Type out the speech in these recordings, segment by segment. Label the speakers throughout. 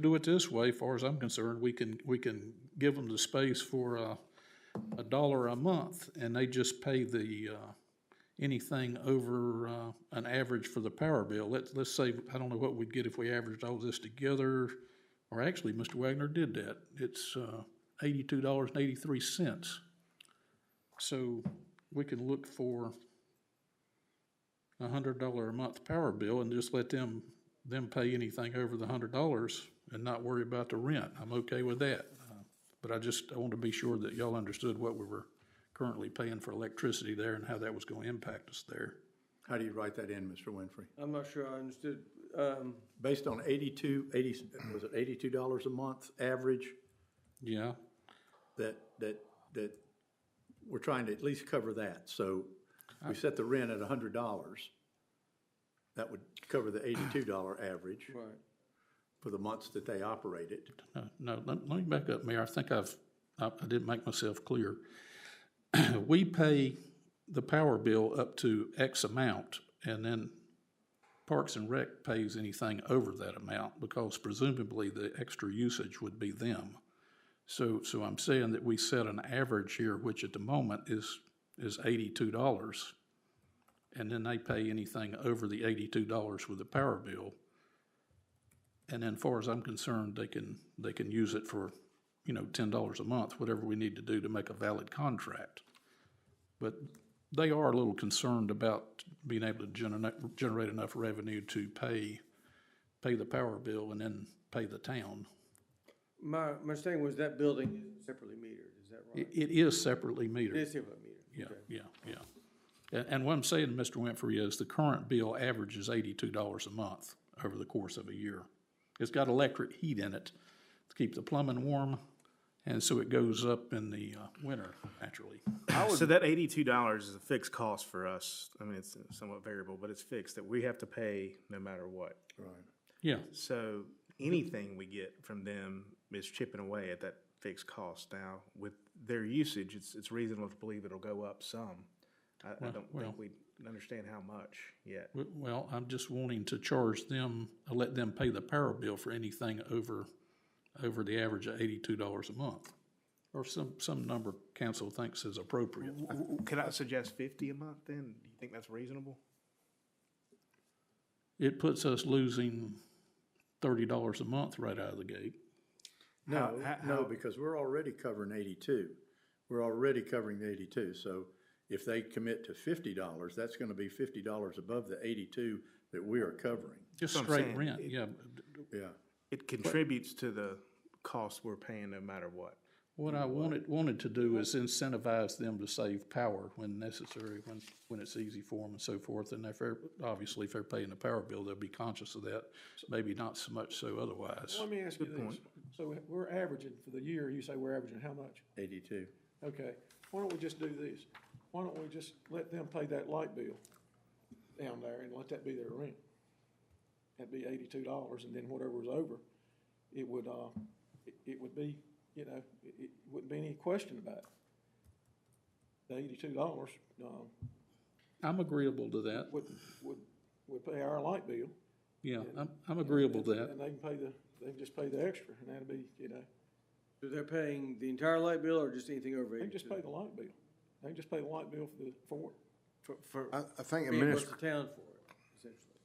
Speaker 1: do it this way, far as I'm concerned, we can, we can give them the space for a, a dollar a month, and they just pay the, uh, anything over, uh, an average for the power bill. Let's, let's say, I don't know what we'd get if we averaged all this together, or actually, Mr. Wagner did that. It's, uh, eighty-two dollars and eighty-three cents. So we can look for a hundred dollar a month power bill and just let them, them pay anything over the hundred dollars and not worry about the rent. I'm okay with that. Uh, But I just, I wanted to be sure that y'all understood what we were currently paying for electricity there and how that was gonna impact us there.
Speaker 2: How do you write that in, Mr. Winfrey?
Speaker 3: I'm not sure I understood. Um,
Speaker 2: Based on eighty-two, eighty, was it eighty-two dollars a month average
Speaker 1: Yeah,
Speaker 2: that, that, that we're trying to at least cover that. So we set the rent at hundred dollars. That would cover the eighty-two dollar average
Speaker 3: right.
Speaker 2: for the months that they operate it.
Speaker 1: no, no, let, let me back up, Mayor. I think I've, I, I didn't make myself clear. We pay the power bill up to X amount, and then Parks and Rec pays anything over that amount, because presumably the extra usage would be them. So, so I'm saying that we set an average here, which at the moment is, is eighty-two dollars. And then they pay anything over the eighty-two dollars with the power bill. And then far as I'm concerned, they can, they can use it for, you know, ten dollars a month, whatever we need to do to make a valid contract. But they are a little concerned about being able to generate, generate enough revenue to pay, pay the power bill and then pay the town.
Speaker 3: My, my understanding was that building is separately metered, is that right?
Speaker 1: It, it is separately
Speaker 3: It
Speaker 1: metered.
Speaker 3: is separately metered.
Speaker 1: Yeah, yeah, yeah. And, and what I'm saying, Mr. Winfrey, is the current bill averages eighty-two dollars a month over the course of a year. It's got electric heat in it to keep the plumbing warm, and so it goes up in the, uh, winter, naturally.
Speaker 4: So that eighty-two dollars is a fixed cost for us. I mean, it's somewhat variable, but it's fixed that we have to pay no matter what.
Speaker 1: Yeah,
Speaker 4: So anything we get from them is chipping away at that fixed cost. Now, with their usage, it's, it's reasonable to believe it'll go up some. I, I don't
Speaker 1: well.
Speaker 4: think we understand how much yet.
Speaker 1: W- well, I'm just wanting to charge them, uh, let them pay the power bill for anything over, over the average of eighty-two dollars a month. Or some, some number council thinks is appropriate.
Speaker 4: W- w- Can I suggest fifty a month then? Do you think that's reasonable?
Speaker 1: It puts us losing thirty dollars a month right out of the gate.
Speaker 2: No,
Speaker 4: How- how-
Speaker 2: no, because we're already covering eighty-two. We're already covering the eighty-two, so if they commit to fifty dollars, that's gonna be fifty dollars above the eighty-two that we are covering.
Speaker 1: Just
Speaker 4: what I'm
Speaker 1: straight
Speaker 4: saying.
Speaker 1: rent, yeah.
Speaker 2: Yeah,
Speaker 4: It contributes to the cost we're paying no matter what.
Speaker 1: What I wanted, wanted to do is incentivize them to save power when necessary, when, when it's easy for them and so forth. And if they're, obviously, if they're paying the power bill, they'll be conscious of that, maybe not so much so otherwise.
Speaker 5: Let me ask you this. So we're averaging for the year, you say we're averaging how much?
Speaker 2: eighty-two.
Speaker 5: Okay, why don't we just do this? Why don't we just let them pay that light bill down there and let that be their rent? That'd be eighty-two dollars and then whatever was over, it would, uh, it, it would be, you know, it, it wouldn't be any question about it. The eighty-two dollars, um,
Speaker 1: I'm agreeable to that,
Speaker 5: would, would, would pay our light bill.
Speaker 1: yeah, I'm, I'm agreeable to that.
Speaker 5: And they can pay the, they can just pay the extra and that'd be, you know.
Speaker 3: So they're paying the entire light bill or just anything over
Speaker 5: They
Speaker 3: eighty?
Speaker 5: can just pay the light bill. They can just pay the light bill for the, for it.
Speaker 3: For, for
Speaker 6: I, I think
Speaker 3: being what's
Speaker 6: administr-
Speaker 3: the town for it, essentially.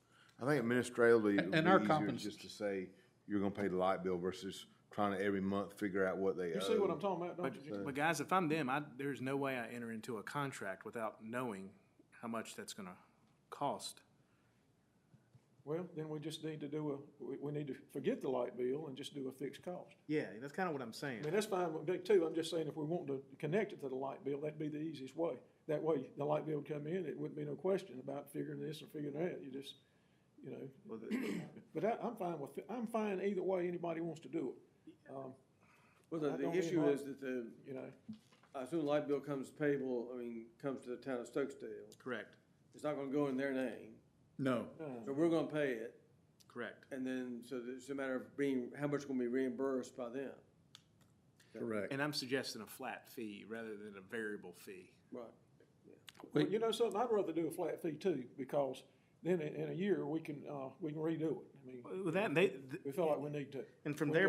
Speaker 6: I think administratively, it would
Speaker 1: And our
Speaker 6: be easier
Speaker 1: compens-
Speaker 6: just to say, you're gonna pay the light bill versus trying to every month figure out what they
Speaker 5: You see what I'm
Speaker 6: owe.
Speaker 5: talking about, don't you?
Speaker 4: But, but guys, if I'm them, I, there's no way I enter into a contract without knowing how much that's gonna cost.
Speaker 5: Well, then we just need to do a, we, we need to forget the light bill and just do a fixed cost.
Speaker 4: Yeah, that's kinda what I'm
Speaker 5: I
Speaker 4: saying.
Speaker 5: mean, that's fine with me too. I'm just saying if we want to connect it to the light bill, that'd be the easiest way. That way, the light bill would come in, it wouldn't be no question about figuring this or figuring that. You just, you know. But I, I'm fine with, I'm fine either way anybody wants to do it. Um,
Speaker 3: Well,
Speaker 5: I
Speaker 3: the, the
Speaker 5: don't mean
Speaker 3: issue
Speaker 5: light-
Speaker 3: is that the,
Speaker 5: you know,
Speaker 3: I assume light bill comes payable, I mean, comes to the town of Stokesdale.
Speaker 4: Correct,
Speaker 3: It's not gonna go in their name,
Speaker 2: No,
Speaker 3: so we're gonna pay it,
Speaker 4: correct.
Speaker 3: and then, so it's a matter of being, how much gonna be reimbursed by them.
Speaker 2: correct.
Speaker 4: And I'm suggesting a flat fee rather than a variable fee.
Speaker 3: Right.
Speaker 5: Well, you know something, I'd rather do a flat fee too, because
Speaker 4: then in, in a year, we can, uh, we can redo it. I mean,
Speaker 5: With that, they,
Speaker 4: we feel like we need to.
Speaker 5: and from
Speaker 4: We
Speaker 5: there.